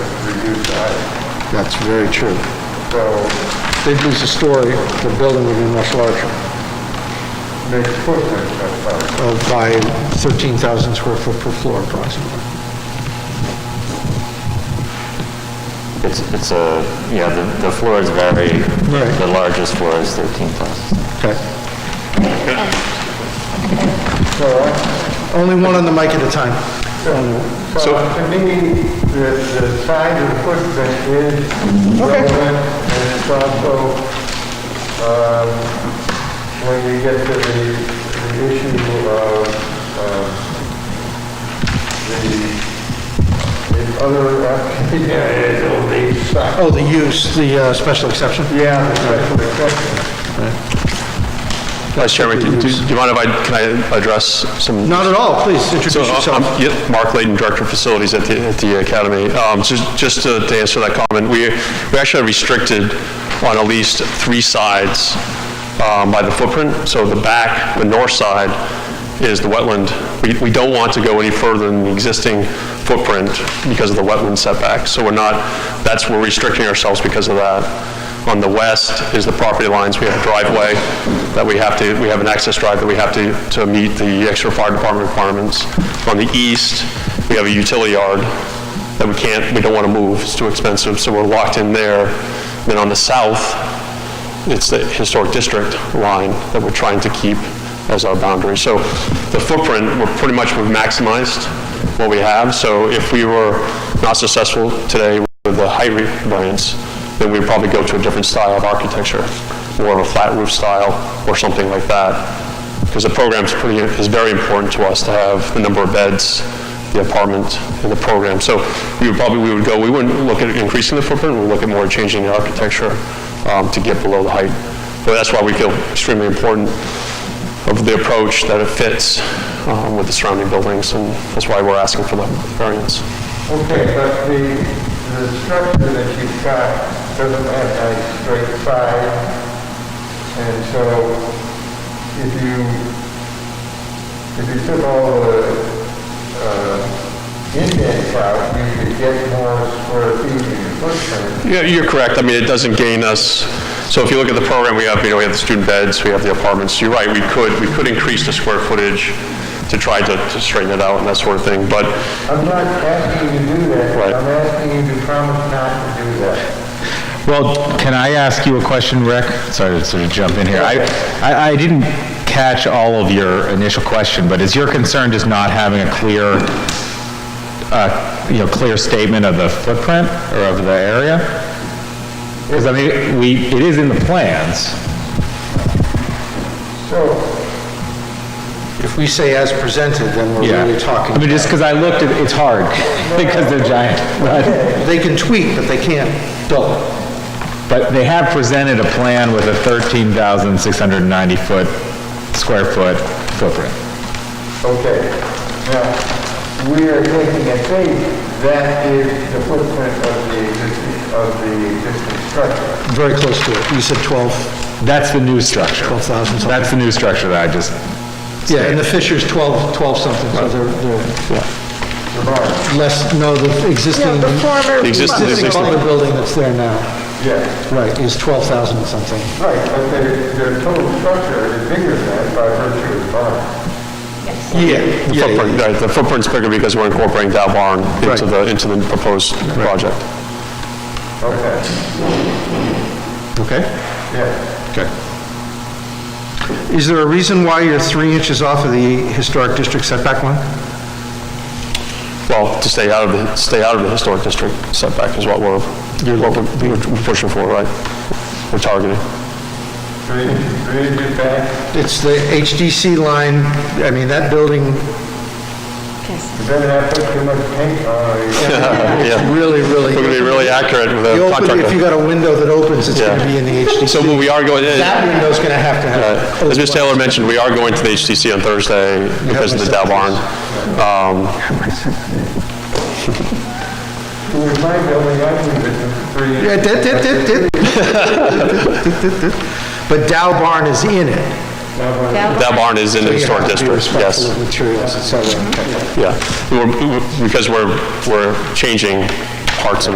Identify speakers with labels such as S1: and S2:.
S1: reduced the height.
S2: That's very true.
S1: So
S2: They'd lose a story, the building would be much larger,
S1: make footprints that far.
S2: uh, by 13,000 square foot per floor approximately.
S3: It's, it's a, yeah, the, the floors vary.
S2: Right.
S3: The largest floor is 13,000.
S2: Okay.
S1: So, I-
S2: Only one on the mic at a time. Only one.
S1: so to me, the, the size of the footprint is
S2: Okay.
S1: relevant, and it's also, um, when you get to the, the issue of, um, the, the other, uh, yeah, it's all the size.
S2: Oh, the use, the uh, special exception?
S1: Yeah, the special exception.
S4: Vice Chairman, do do- do you mind if I, can I address some?
S2: Not at all, please introduce
S4: So, uh,
S2: yourself.
S4: I'm- yeah, Mark Layden, Director of Facilities at the, at the Academy. Um, just, just to to answer that comment, we, we actually are restricted on at least three sides, um, by the footprint. So the back, the north side is the wetland. We, we don't want to go any further than the existing footprint because of the wetland setback. So we're not, that's, we're restricting ourselves because of that. On the west is the property lines, we have a driveway that we have to, we have an access drive that we have to, to meet the extra fire department requirements. On the east, we have a utility yard that we can't, we don't want to move, it's too expensive, so we're locked in there. Then on the south, it's the historic district line that we're trying to keep as our boundary. So the footprint, we're pretty much, we've maximized what we have, so if we were not successful today with the height re- variance, then we'd probably go to a different style of architecture, more of a flat roof style or something like that. Because the program's pretty, is very important to us to have the number of beds, the apartment, and the program. So we would probably, we would go, we wouldn't look at increasing the footprint, we'd look at more changing the architecture um, to get below the height. But that's why we feel extremely important of the approach, that it fits um, with the surrounding buildings, and that's why we're asking for the variance.
S1: Okay, but the, the structure that you've got doesn't have a straight side, and so if you, if you took all the, uh, indents out, you could get more square feet in your footprint.
S4: Yeah, you're correct. I mean, it doesn't gain us, so if you look at the program, we have, you know, we have the student beds, we have the apartments. You're right, we could, we could increase the square footage to try to to straighten it out and that sort of thing, but
S1: I'm not asking you to do that,
S4: Right.
S1: I'm asking you to promise not to do that.
S5: Well, can I ask you a question, Rick? Sorry to sort of jump in here. I, I I didn't catch all of your initial question, but is your concern just not having a clear, uh, you know, clear statement of the footprint or of the area? Because I mean, we, it is in the plans.
S1: So,
S2: If we say as presented, then we're really talking.
S5: I mean, just because I looked, at it's hard because they're giant. but-
S2: They can tweak, but they can't double.
S5: But they have presented a plan with a 13,690 foot, square foot footprint.
S1: Okay, now, we are taking a faith that is the footprint of the existing, of the existing structure.
S2: Very close to it. You said 12,
S5: That's the new structure.
S2: 12,000 something.
S5: That's the new structure that I just,
S2: Yeah, and the Fisher's 12, 12 something, so they're, they're
S1: The barn,
S2: less, no, the
S6: No,
S2: existing,
S6: the former.
S4: The existing-
S2: existing
S4: Existing.
S2: public building that's there now,
S1: yes,
S2: right, is 12,000 something.
S1: right, but the, the total structure is bigger than that by virtue of the barn.
S4: the footprint, right, the footprint's bigger because we're incorporating that barn into the, into the proposed project.
S1: Okay,
S2: Okay.
S1: yes.
S2: Is there a reason why you're three inches off of the historic district setback line?
S4: Well, to stay out of the, stay out of the historic district setback is what we're, what we're we're pushing for, right? We're targeting.
S1: Three, three inches back,
S2: It's the HDC line, I mean, that building
S1: you better not put too much paint on it.
S4: Yeah,
S2: really, really...
S4: we're gonna be really accurate with
S2: You open-
S4: the
S2: If you
S4: contractor.
S2: got a window that opens, it's going to
S4: Yeah.
S2: be in the HDC.
S4: So we are going,
S2: That window's going to have to have...
S4: Uh, As Ms. Taylor mentioned, we are going to the HTC on Thursday because of the Dow barn. Um,
S1: It was my building, I think it's three.
S2: Yeah,
S1: inches.
S2: dit, dit, dit, dit. Dit, dit, dit. But Dow Barn is in it.
S4: Dow barn is in the historic district,
S2: You have to be respectful
S4: yes,
S2: of materials, et cetera.
S4: yeah. We're- we're- Because we're, we're changing parts of